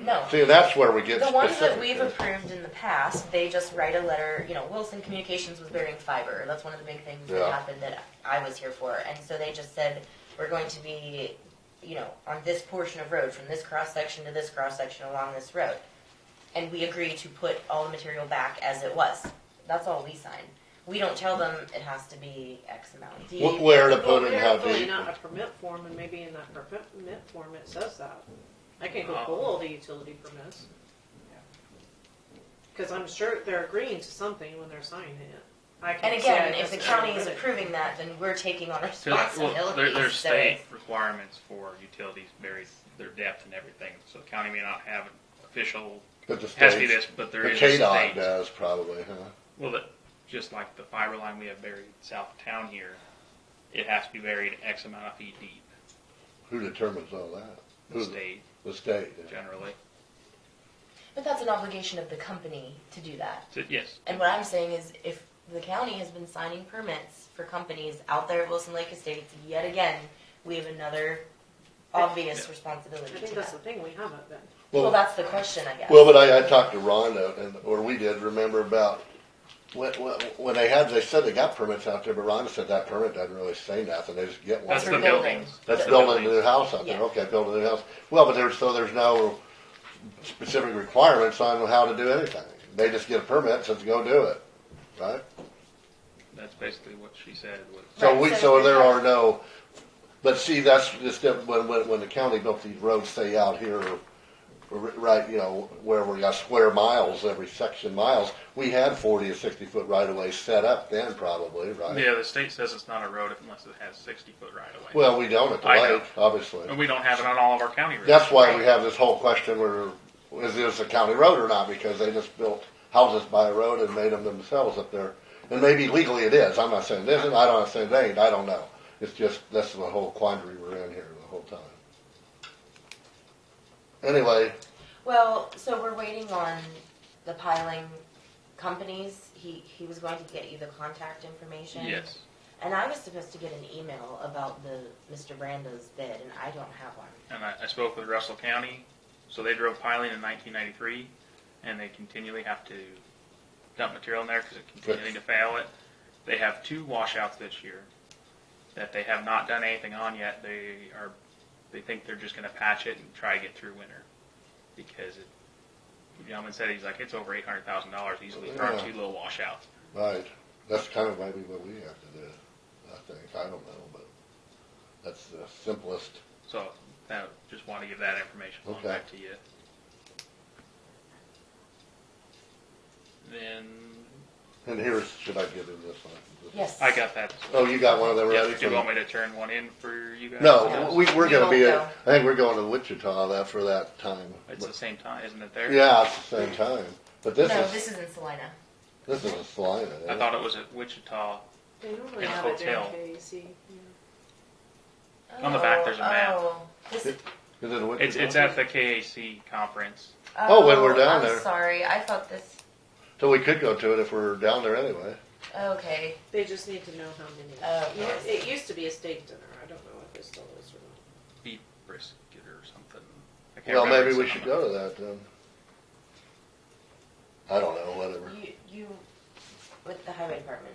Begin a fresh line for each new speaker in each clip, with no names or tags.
No.
See, that's where we get
The ones that we've
specific.
approved in the past, they just write a letter, you know, Wilson Communications was burying fiber, that's one of the big things that
Yeah.
happened that I was here for, and so they just said, we're going to be, you know, on this portion of road, from this cross section to this cross section along this road. And we agree to put all the material back as it was, that's all we sign, we don't tell them it has to be X amount.
Wh- Where to
Well,
put it,
they're
and how
filling
deep.
out a permit form, and maybe in that permit form it says that. I can go
Oh.
pull all the utility permits. Cause I'm sure they're agreeing to something when they're signing it. I can
And
say I
again, if the
just-
county is approving that, then we're taking on
Cause,
responsibility,
well, there, there's
so
state requirements for utilities, varies their depth and everything, so the county may not have an official,
But the
has to be
states-
this, but
The
there is a
KDOT uh,
state.
does probably, huh?
Well, the- just like the fiber line we have buried south of town here, it has to be buried X amount of feet deep,
Who determines all that?
the
Who-
state
The state. yeah.
generally.
But that's an obligation of the company to do that.
So, yes,
And what I'm saying is if the county has been signing permits for companies out there at Wilson Lake Estates, yet again, we have another obvious
I
responsibility
think
to
that's
that.
the thing, we haven't been.
Well, that's the question, I guess.
Well, but I, I talked to Rhonda, and, or we did, remember about, when, when when they had, they said they got permits out there, but Rhonda said that permit doesn't really say nothing, they just get one.
that's
for
the
buildings.
buildings.
That's
the
building a new house out there,
Yeah.
okay, building a new house. Well, but there's, so there's no specific requirements on how to do anything. They just get a permit, says go do it, right?
That's basically what she said was.
So
Right,
we,
so
so
if
there
they
are
have-
no, but see, that's just, it, when, when, when the county built these roads, say out here, or r- right, you know, where we got square miles, every section miles, we had forty or sixty foot right of ways set up then probably, right?
Yeah, the state says it's not a road unless it has sixty foot right of way.
Well, we don't at the
I know.
lake, obviously.
And we don't have it on all of our county roads.
That's why we have this whole question where, is this a county road or not, because they just built houses by a road and made them themselves up there. And maybe legally it is, I'm not saying it isn't, I don't say it ain't, I don't know. It's just, that's the whole quandary we're in here the whole time. Anyway,
Well, so we're waiting on the piling companies. He, he was going to get you the contact information.
Yes.
And I was supposed to get an email about the, Mr. Brando's bid, and I don't have one.
And I, I spoke with Russell County, so they drove piling in 1993, and they continually have to dump material in there because it's continuing to fail it. They have two washouts this year that they have not done anything on yet. They are, they think they're just going to patch it and try to get through winter because it. The gentleman said he's like it's over eight hundred thousand dollars easily for our
Yeah.
two little washouts.
right, that's kind of maybe what we have to do, I think, I don't know, but that's the simplest.
So that, just want to give that information along
Okay.
back to you. Then
And here's, should I give him this one?
Yes.
I got that.
Oh, you got one of them
Yeah,
ready?
do you want me to turn one in for you guys?
No, we, we're
We
gonna
won't
be,
go.
at- I think we're going to Wichita that, for that time.
It's the same time, isn't it there?
Yeah, it's the same time, but this
No,
is,
this is in Salina.
this is a eh? Salina,
I
isn't it?
thought it was at Wichita.
They
In
normally
a
have it E there
hotel.
in KC. yeah.
On the back, there's a map.
Oh, oh. This-
Is it a
It's, it's
Wichita?
at the KAC conference.
Oh, when we're down
I'm
there.
Sorry, I thought this.
So we could go to it if we're down there anyway.
Okay.
They just need to know how many.
Oh,
Yeah,
yes.
It used to be a steak dinner, I don't know if it still is or not.
Beef brisket or something. I can't
Well,
remember
maybe we should
exactly.
go to that then. I don't know, whatever.
You, you, with the highway department.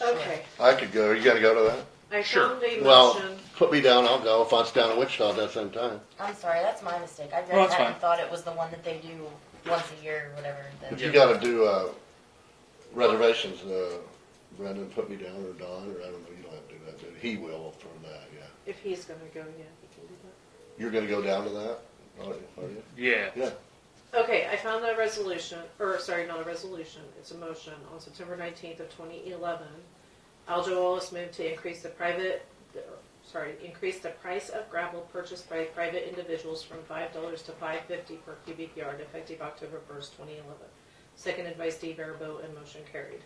Okay,
I could go, you gonna go to that?
I
Sure.
found a
Well,
motion.
put me down, I'll go, if it's down in Wichita at that same time.
I'm sorry, that's my mistake. I read
Well, that's
that and
fine.
thought it was the one that they do once a year or whatever.
But
The,
you gotta do, uh, reservations, uh, Brendan, put me down, or Don, or I don't know, you don't have to do that, but he will for that, yeah.
If he's gonna go, yeah, he can do that.
You're gonna go down to that, are you? Are you?
Yeah.
Yeah,
Okay, I found a resolution, or sorry, not a resolution, it's a motion on September nineteenth of twenty eleven. Aljo Wallace moved to increase the private, sorry, increase the price of gravel purchased by private individuals from five dollars to five fifty per cubic yard effective October first, twenty eleven. Seconded by Steve Barabo and motion carried.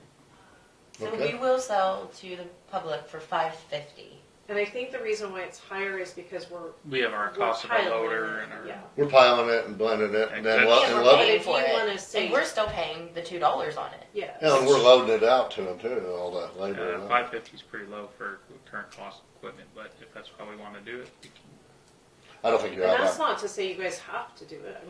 so
Okay.
we will sell to the public for five fifty.
And I think the reason why it's higher is because we're.
We have our
we're
cost of our
piloting
loader
it,
and our.
Yeah.
we're piling it and blending it, and then, lo-
Well,
yeah,
and
we're
lo-
paying
If
for
you
it.
wanna save-
and we're still paying the two dollars on it.
Yes.
Yeah, and we're loading it out to them too, all that labor.
Uh,
and all.
five fifty is pretty low for current cost of equipment, but if that's how we want to do it, we can
I don't think you're
And
out
that's
of,
not to say you guys have to do it.